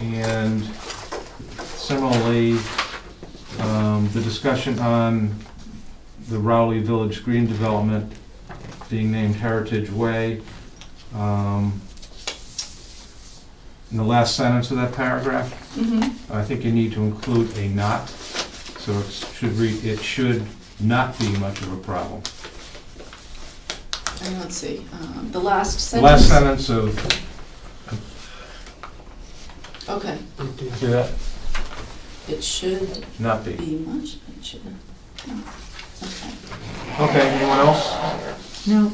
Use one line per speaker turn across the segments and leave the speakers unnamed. And similarly, um, the discussion on the Rowley Village Green Development being named Heritage Way. um, In the last sentence of that paragraph,
Mm-hmm.
I think you need to include a not, so it should read, it should not be much of a problem.
And let's see, um, the last
The Last
sentence.
sentence of,
Okay,
see that?
it should
Not be.
be much, it should, no, okay.
Okay, anyone else?
No.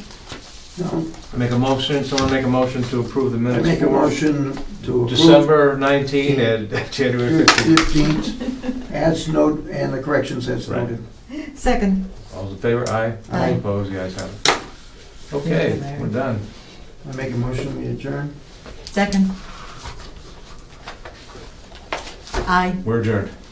Make a motion, someone make a motion to approve the
I
minutes
make a
for
motion to approve
December 19 and January 15.
fifteenth, as note, and the corrections as
Right.
noted.
Second.
All those in favor, aye.
Aye.
Opposed, the ayes have it. Okay,
Larry.
we're done.
I make a motion, we adjourn.
Second. Aye.
We're adjourned.